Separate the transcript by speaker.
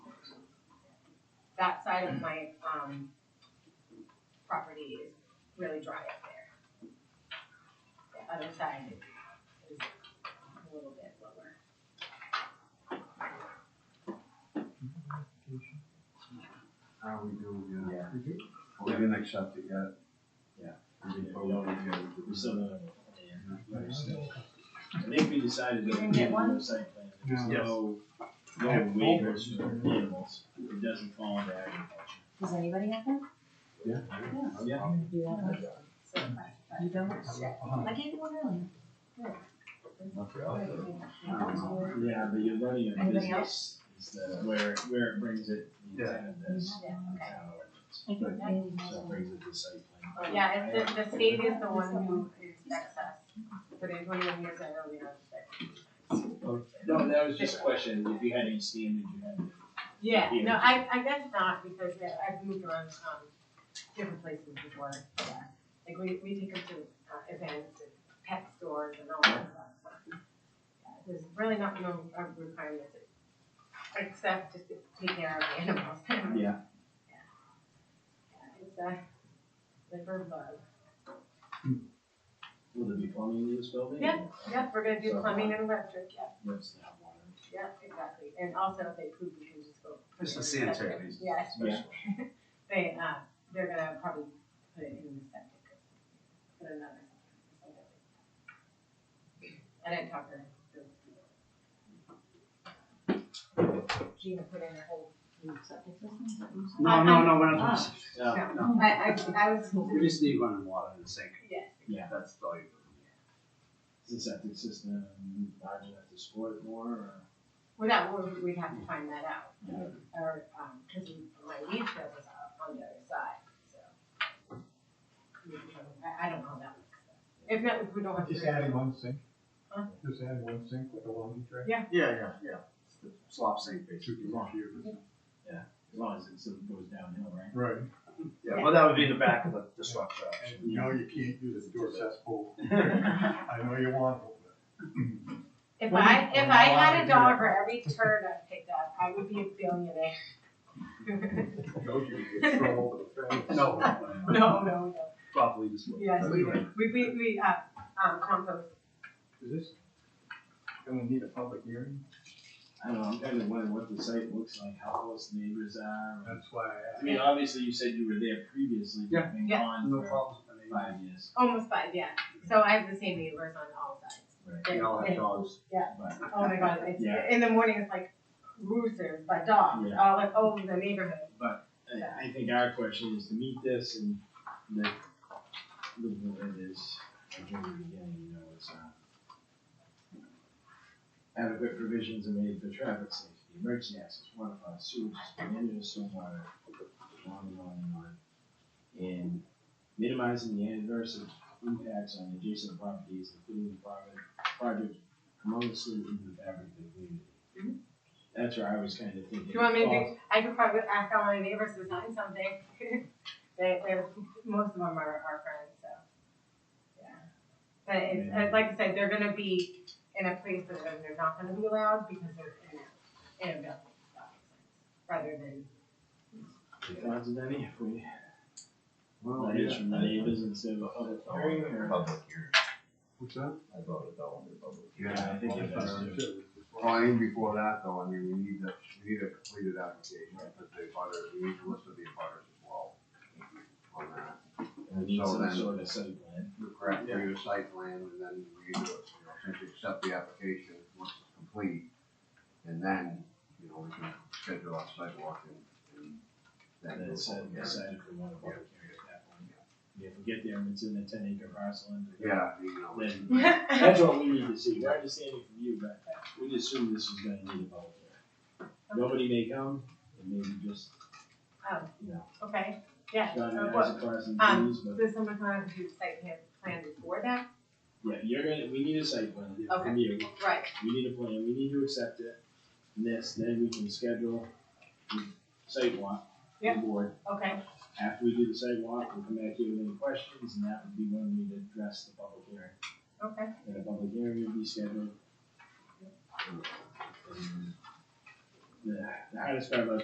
Speaker 1: side of my, um, property is really dry up there. The other side is a little bit lower.
Speaker 2: How we do, yeah.
Speaker 3: Yeah.
Speaker 2: We didn't accept it yet.
Speaker 3: Yeah.
Speaker 2: We didn't vote on it yet.
Speaker 3: We still don't have one. I think we decided that.
Speaker 1: Didn't get
Speaker 3: we
Speaker 1: one?
Speaker 3: do the site plan. There's
Speaker 2: Yes.
Speaker 3: No, no
Speaker 2: Yeah.
Speaker 3: waivers for animals, it doesn't fall into agriculture.
Speaker 4: Does anybody have that?
Speaker 3: Yeah,
Speaker 4: Do you have that?
Speaker 1: So,
Speaker 4: You don't?
Speaker 1: shit.
Speaker 4: I gave you one earlier.
Speaker 3: yeah, but you're running a
Speaker 1: Anybody
Speaker 3: business, is the, where, where it brings it, the
Speaker 2: Yeah.
Speaker 3: intent of this.
Speaker 1: Yeah, okay.
Speaker 3: town ordinance.
Speaker 4: I think Randy has
Speaker 3: So it
Speaker 4: one.
Speaker 3: brings it to site plan.
Speaker 1: um, Yeah, it's the, the state is the one who inspects us, but in twenty years, I know we don't inspect.
Speaker 3: No, that was just a question, if you had any standards you had.
Speaker 1: Yeah, no, I, I guess not, because yeah, I've moved around, um, different places before, yeah. Like, we, we take them to, uh, events, and pet stores and all that stuff. so, yeah, There's really not no uh, requirements, except just to take care of the animals. Yeah,
Speaker 3: Yeah.
Speaker 1: It's uh, a liver bug.
Speaker 3: Will there be plumbing in this building?
Speaker 1: Yeah, Yep, we're gonna do
Speaker 3: So-
Speaker 1: plumbing and electric, yep,
Speaker 3: Let's not have water.
Speaker 1: yep, exactly, and also if they poop, we can just go.
Speaker 2: It's the sanitary
Speaker 1: Separate.
Speaker 2: reasons.
Speaker 1: Yes.
Speaker 3: Yeah.
Speaker 1: They, uh, they're gonna probably put it in the septic, or put another. septic. I didn't talk to her.
Speaker 4: Gina put in a whole new septic system, is that what you said?
Speaker 5: No,
Speaker 1: I-
Speaker 5: no, no, we're not. doing
Speaker 3: Yeah.
Speaker 5: No.
Speaker 1: I, I, I was,
Speaker 5: We just need running water in the sink.
Speaker 1: yes,
Speaker 3: Yeah.
Speaker 5: That's all you.
Speaker 3: Is the septic system large enough to support it more, or?
Speaker 1: well, that, we- we'd have to find that out, or, um, cause my leach field was up on the other side, so. We can try to- I, I don't know that one. If not, if we don't have to.
Speaker 6: Just adding one sink.
Speaker 1: Huh?
Speaker 6: Just adding one sink with a laundry tray.
Speaker 5: Yeah, yeah, yeah. It's the Slop sink basically.
Speaker 3: As long as it sort of goes downhill, right?
Speaker 6: Right.
Speaker 5: Yeah, well, that would be the back of the, the structure.
Speaker 6: And you know you can't do this door cesspool. I know you want it, but
Speaker 1: If
Speaker 6: Well,
Speaker 1: I, if I had a
Speaker 6: well,
Speaker 1: dollar for every turd I picked up, I would be a billionaire.
Speaker 6: those you get thrown over the fence.
Speaker 5: No.
Speaker 1: No, no, no.
Speaker 5: Probably this one.
Speaker 1: Yes, we,
Speaker 5: Anyway.
Speaker 1: we, we, we, uh, um, compost.
Speaker 6: Is this gonna need a public hearing?
Speaker 3: I don't know, I'm kind of wondering what the site looks like, how close the neighbors are.
Speaker 6: That's why
Speaker 3: I
Speaker 6: I
Speaker 3: mean,
Speaker 6: asked.
Speaker 3: obviously, you said you were there previously,
Speaker 5: Yeah.
Speaker 3: you've been
Speaker 1: Yeah.
Speaker 3: gone
Speaker 5: No
Speaker 3: for
Speaker 5: problems with any of
Speaker 3: five years,
Speaker 1: Almost five, yeah. So I have the same neighbors on all sides.
Speaker 3: Right.
Speaker 5: that. We all have dogs.
Speaker 3: but,
Speaker 1: Oh my god, it's,
Speaker 3: Yeah.
Speaker 1: in the morning it's like roosters, but dogs,
Speaker 3: Yeah.
Speaker 1: all like over the neighborhood.
Speaker 3: but I, I think our question is to meet this and the, the, it is, again, again, you know, it's, uh, adequate provisions are made for traffic safety, emergency access, water flow, sewage, management, stormwater, on and on and on. And minimizing the adverse impacts on adjacent properties, including the private project, harmoniously into the fabric of the community. That's where I was kind of thinking.
Speaker 1: Mm-hmm. Do you want me to,
Speaker 3: oh,
Speaker 1: do- I could probably ask all my neighbors to sign something. They, they, most of them are, are friends, so, yeah. But it's,
Speaker 3: Yeah.
Speaker 1: uh, like I said, they're gonna be in a place that they're not gonna be allowed because they're in a, in a building, if that makes sense, rather than.
Speaker 3: If that's any, if we.
Speaker 2: Well,
Speaker 3: That is from the neighbors instead of a public hearing or?
Speaker 7: Public hearing.
Speaker 6: What's that?
Speaker 7: I voted that one to public hearing.
Speaker 2: Yeah, I think
Speaker 3: Yeah.
Speaker 2: if, uh,
Speaker 6: Well,
Speaker 2: well, even before that though, I mean, we need to, we need a completed application, but the butters, we need to list of the butters as well. On that.
Speaker 3: Or need
Speaker 2: So
Speaker 3: some
Speaker 2: then-
Speaker 3: sort of site plan.
Speaker 2: Correct, we need a site plan and then we do it, you know, since you accept the application, once it's complete. And then, you know, we can schedule our sidewalk and, and then.
Speaker 3: And
Speaker 2: do a
Speaker 3: then set,
Speaker 2: public hearing.
Speaker 3: decide if we want a public hearing at that point. If we get there and it's in a ten acre parcel and.
Speaker 2: Yeah, you know. we-
Speaker 3: Then, that's what we need to see. We're understanding from you, but we assume this is gonna need a public hearing. Nobody may come, and maybe just,
Speaker 1: Oh,
Speaker 3: you know,
Speaker 1: okay, yeah,
Speaker 3: John
Speaker 1: so
Speaker 3: and
Speaker 1: what,
Speaker 3: I's crossing
Speaker 1: um,
Speaker 3: Ts, but,
Speaker 1: does someone want to do site plan, plan before that?
Speaker 3: yeah, you're gonna, we need a site plan
Speaker 1: Okay.
Speaker 3: from you.
Speaker 1: Right,
Speaker 3: we need a plan, we need to accept it, and this, then we can schedule the site walk. with the
Speaker 1: Yeah.
Speaker 3: Board,
Speaker 1: okay,
Speaker 3: after we do the site walk, we'll come back here with any questions, and that would be when we'd address the public hearing.
Speaker 1: okay.
Speaker 3: And a public hearing would be scheduled. And The the hardest part about